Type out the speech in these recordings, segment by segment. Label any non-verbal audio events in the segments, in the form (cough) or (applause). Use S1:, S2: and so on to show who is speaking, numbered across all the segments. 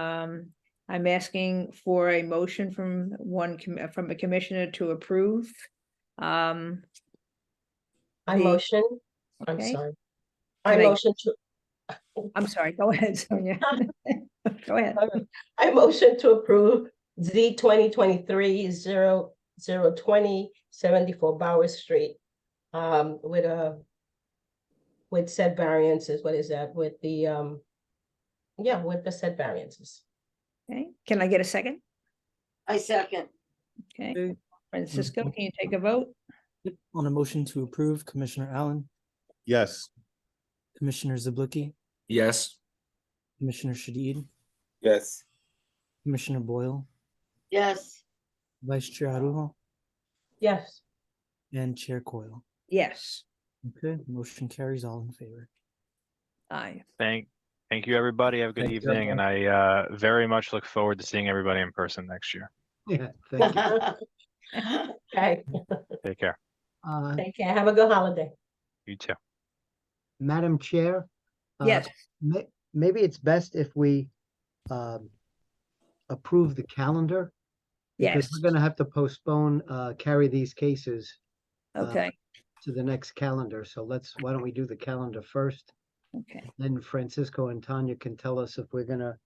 S1: Um, I'm asking for a motion from one, com- from a commissioner to approve. Um,
S2: I
S1: the-
S2: motion, I'm
S1: Okay.
S2: sorry. I
S1: Can I-
S2: motion to,
S1: I'm sorry, go ahead, Sonia. (laughs) Go ahead.
S2: I motion to approve Z twenty twenty-three zero, zero twenty seventy-four Bauer Street. Um, with a, with said variances, what is that, with the, um, yeah, with the said variances.
S1: Okay, can I get a second?
S3: I second.
S1: Okay,
S4: Okay.
S1: Francisco, can you take a vote?
S4: On a motion to approve, Commissioner Allen,
S5: Yes.
S4: Commissioner Zabluki,
S6: Yes.
S4: Commissioner Shadid,
S5: Yes.
S4: Commissioner Boyle,
S3: Yes,
S4: Vice Chair Arujo,
S2: Yes,
S4: and Chair Coyle.
S1: Yes,
S4: Okay, motion carries all in favor.
S1: aye.
S7: Thank, thank you, everybody. Have a good
S4: Thank you,
S7: evening, and I uh, very much look forward to seeing everybody in person next year.
S4: Yeah,
S1: (laughs)
S3: (laughs)
S2: okay,
S7: Take care.
S8: Uh,
S2: take care, have a good holiday.
S7: You too.
S8: Madam Chair? uh,
S1: Yes,
S8: may- Maybe it's best if we um, approve the calendar.
S1: yes,
S8: Because we're gonna have to postpone, uh, carry these cases uh,
S1: okay,
S8: to the next calendar. So let's, why don't we do the calendar first?
S1: okay.
S8: Then Francisco and Tanya can tell us if we're gonna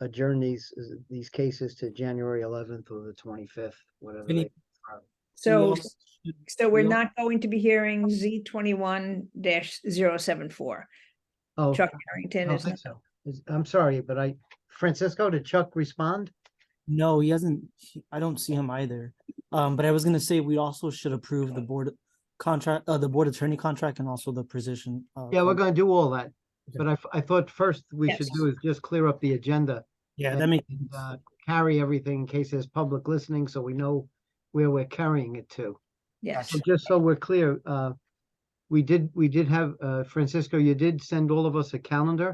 S8: adjourn these, these cases to January eleventh or the twenty-fifth, whatever.
S4: Any-
S8: they-
S1: So,
S4: We all-
S1: so we're
S4: we all-
S1: not going to be hearing Z twenty-one dash zero seven four.
S8: Oh,
S1: Chuck
S8: I
S1: Harrington
S8: don't
S1: is,
S8: think so. Is- I'm sorry, but I, Francisco, did Chuck respond?
S4: No, he hasn't, he- I don't see him either. Um, but I was gonna say, we also should approve the board contract, uh, the board attorney contract and also the position. uh,
S8: Yeah, we're
S4: con-
S8: gonna do all that,
S4: Okay.
S8: but I, f- I thought first we should
S1: Yes.
S8: do is just clear up the agenda.
S4: Yeah,
S8: and-
S4: that makes,
S8: and,
S4: sense.
S8: uh, Carry everything in case there's public listening, so we know where we're carrying it to.
S1: yes,
S8: So just so we're clear, uh, we did, we did have, uh, Francisco, you did send all of us a calendar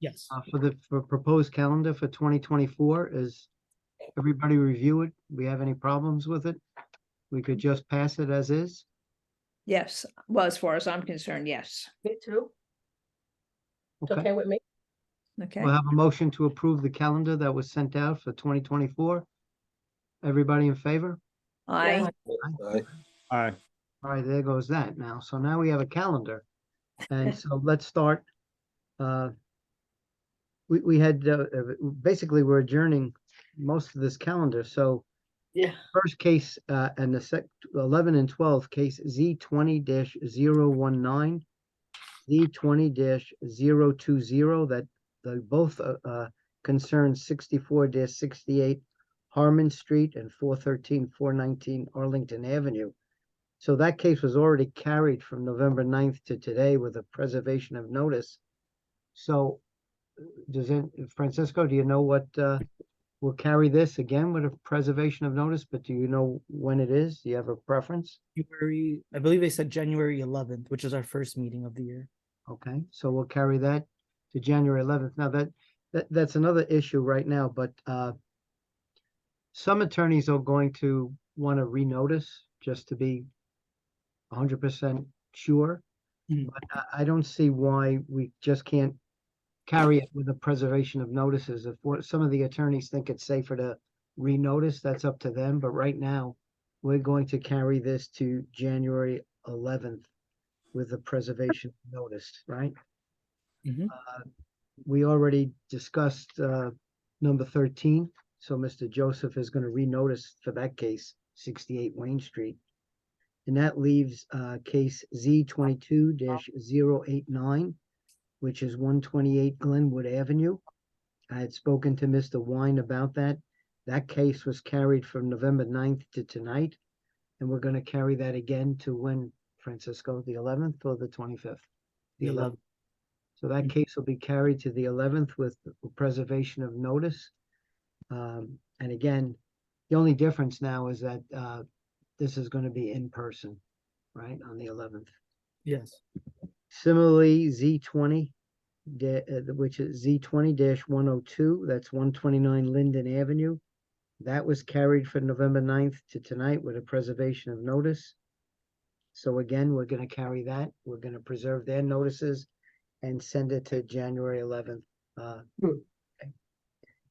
S4: yes,
S8: uh, for the, for proposed calendar for twenty twenty-four. Is everybody review it? We have any problems with it? We could just pass it as is?
S1: yes. Well, as far as I'm concerned, yes,
S2: Me too. It's
S8: Okay,
S2: okay with me?
S1: okay.
S8: we'll have a motion to approve the calendar that was sent out for twenty twenty-four. Everybody in favor?
S1: Aye,
S5: Aye.
S8: All right, there goes that now. So now we have a calendar. And so (laughs) let's start. uh, We, we had, uh, uh, basically, we're adjourning most of this calendar. So
S3: yeah,
S8: first case uh, and the sec, eleven and twelve, case Z twenty 19 Z twenty 20 that the both uh, uh, concern sixty-four sixty-eight Harmon Street and 413, 419 Arlington Avenue. So that case was already carried from November 9th to today with a preservation of notice. So uh, does it, Francisco, do you know what, uh, will carry this again with a preservation of notice, but do you know when it is? Do you have a preference?
S4: January, I believe they said January eleventh, which is our first meeting of the year.
S8: Okay, so we'll carry that to January eleventh. Now that, that, that's another issue right now, but, uh, some attorneys are going to want to renotice just to be hundred percent sure.
S4: Mm.
S8: But I, I don't see why we just can't carry it with the preservation of notices. If what, some of the attorneys think it's safer to renotice, that's up to them, but right now, we're going to carry this to January eleventh with the preservation notice, right?
S4: Mhm.
S8: Uh, We already discussed uh, number thirteen, so Mr. Joseph is going to renotice for that case, sixty-eight Wayne Street. And that leaves uh, case Z twenty-two 89 which is one twenty-eight Glenwood Avenue. I had spoken to Mr. Wine about that. That case was carried from November 9th to tonight. And we're going to carry that again to when Francisco, the eleventh or the twenty-fifth? The
S4: The
S8: eleventh. So that
S4: Mm.
S8: case will be carried to the eleventh with preservation of notice. Um, and again, the only difference now is that, uh, this is gonna be in person, right, on the eleventh.
S4: Yes.
S8: Similarly, Z twenty, da- uh, which is Z twenty one oh two, that's one twenty-nine Linden Avenue. That was carried from November 9th to tonight with a preservation of notice. So again, we're gonna carry that, we're gonna preserve their notices and send it to January eleventh, uh,
S2: Hmm.